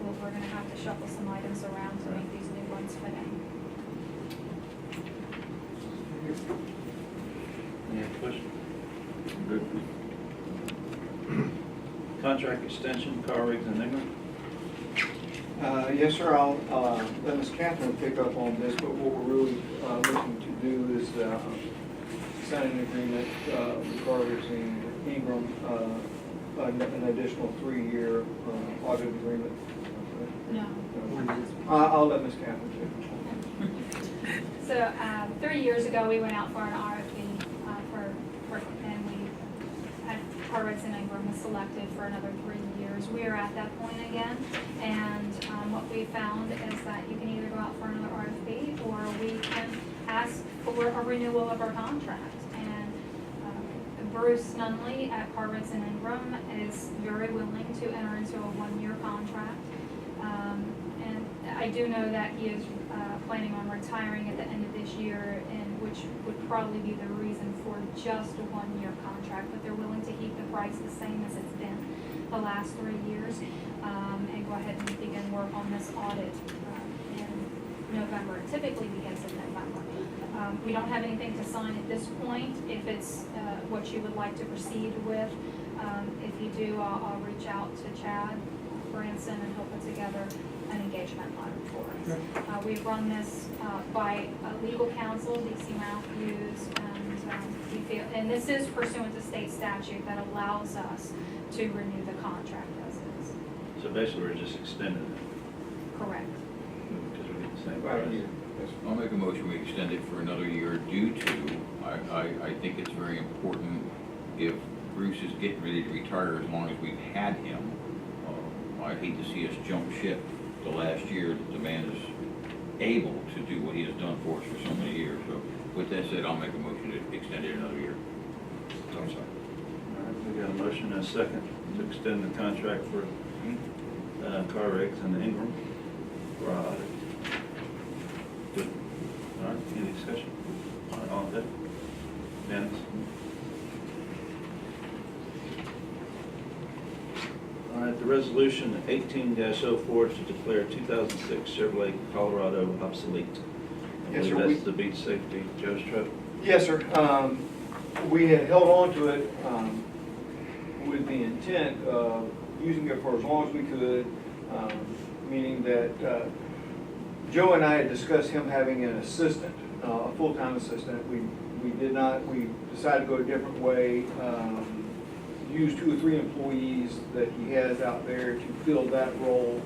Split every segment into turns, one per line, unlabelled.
we're gonna have to shuffle some items around to make these new ones fit in.
Any other questions? Contract extension, car rigs and Ingram.
Uh, Yes, sir, I'll uh, let Ms. Catherine pick up on this, but what we're really uh, looking to do is uh, sign an agreement uh, with Carter's and Ingram, uh, an an additional three-year uh, audit agreement.
No.
Uh, I'll let Ms. Catherine take it.
So, um, three years ago, we went out for an RFP, uh, for, for, and we, at Harvard's and Ingram was selected for another three years. We are at that point again, and, um, what we found is that you can either go out for another RFP, or we can ask for a renewal of our contract. And um, Bruce Nunley at Harvard's and Ingram is very willing to enter into a one-year contract. Um, And I do know that he is uh, planning on retiring at the end of this year, and which would probably be the reason for just a one-year contract, but they're willing to keep the price the same as it's been the last three years, um, and go ahead and begin work on this audit uh, in November. It Typically begins in November. Um, We don't have anything to sign at this point. If it's uh, what you would like to proceed with, um, if you do, I'll, I'll reach out to Chad Branson and he'll put together an engagement letter for us. Uh, we've run this, uh, by uh, legal counsel, DC Matthews, and, um, we feel, and this is pursuant to state statute that allows us to renew the contract as is.
So basically, we're just extending it
Correct.
because we're getting the same
Right
price.
here. Yes,
I'll make a motion, we extend it for another year due to, I, I, I think it's very important, if Bruce is getting ready to retire, as long as we've had him, uh, I hate to see us jump ship the last year that the man is able to do what he has done for us for so many years. So with that said, I'll make a motion to extend it another year. I'm sorry.
All right, we got a motion and a second to extend the contract for uh, car rigs and Ingram. for our audit. Good. All right, any discussion? All right, All in favor? Dennis? All right, the resolution eighteen 4 to declare two thousand six Chevrolet Colorado obsolete. I
Yes, sir,
believe
we-
That's the beach safety, Joe's truck.
Yes, sir. Um, We had held on to it um, with the intent of using it for as long as we could, um, meaning that uh, Joe and I had discussed him having an assistant, uh, a full-time assistant. We, we did not, we decided to go a different way, um, use two or three employees that he has out there to fill that role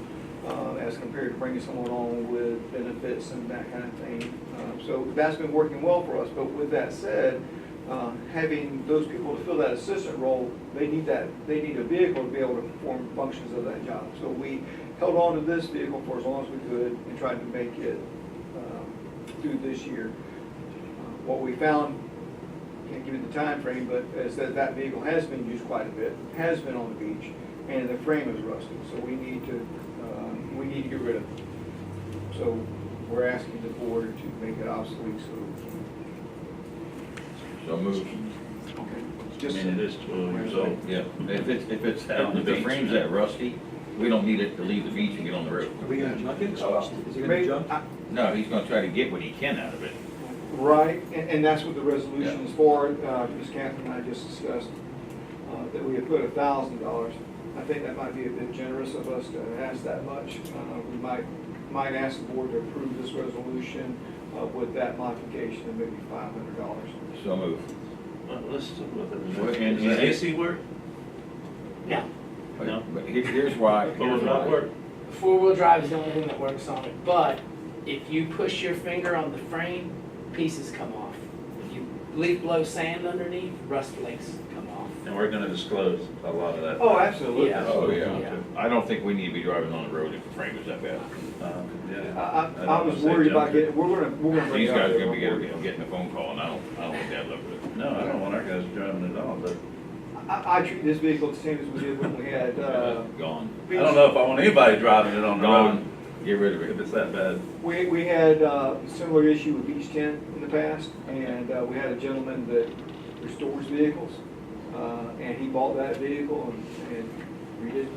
uh, as compared to bringing someone on with benefits and that kind of thing. Uh, So that's been working well for us, but with that said, uh, having those people to fill that assistant role, they need that, they need a vehicle to be able to perform functions of that job. So we held on to this vehicle for as long as we could and tried to make it um, through this year. Uh, What we found can't give you the time frame, but is that that vehicle has been used quite a bit, has been on the beach, and the frame is rusted, so we need to, uh, we need to get rid of it. So we're asking the board to make it obsolete, so.
So move.
I
Just-
mean, it is twelve years old.
Yeah, if it's, if it's,
Out on the
if the
beach.
frame's that rusty, we don't need it to leave the beach and get on the road.
Are we gonna jump it?
Oh,
Is he gonna
Maybe-
jump?
I-
No, he's gonna try to get what he can out of it.
Right, and, and that's what the resolution is for, uh, Ms. Catherine and I just discussed, uh, that we had put a thousand dollars. I think that might be a bit generous of us to ask that much. Uh, we might, might ask the board to approve this resolution, uh, with that modification of maybe five hundred dollars.
So move.
Well, Let's talk about that. in a
Well,
minute.
and-
Does the AC work?
But-
No.
But here- here's why.
Or will
here's
it not
why.
work?
Four-wheel drive is the only thing that works on it, but if you push your finger on the frame, pieces come off. If you leaf blow sand underneath, rust flakes come off.
And we're gonna disclose a lot of that.
Oh, absolutely.
Yeah.
Oh, yeah.
Yeah.
I don't think we need to be driving on the road if the frame is that bad.
Um,
I,
yeah.
I,
don't
I was
wanna say
worried about
junk it.
getting, we're gonna, we're gonna bring
These
it up.
guys are
there.
gonna be getting, getting a phone call, and I don't, I don't think that look good.
No, I don't want our guys driving at all, but
I, I treat this vehicle the same as we did when we had, uh,
Gone,
I don't know if I want anybody driving it on the road
gone, get rid of
if
it.
it's that bad.
We, we had uh, a similar issue with Beach Tent in the past, and uh, we had a gentleman that restores vehicles, uh, and he bought that vehicle and, and redid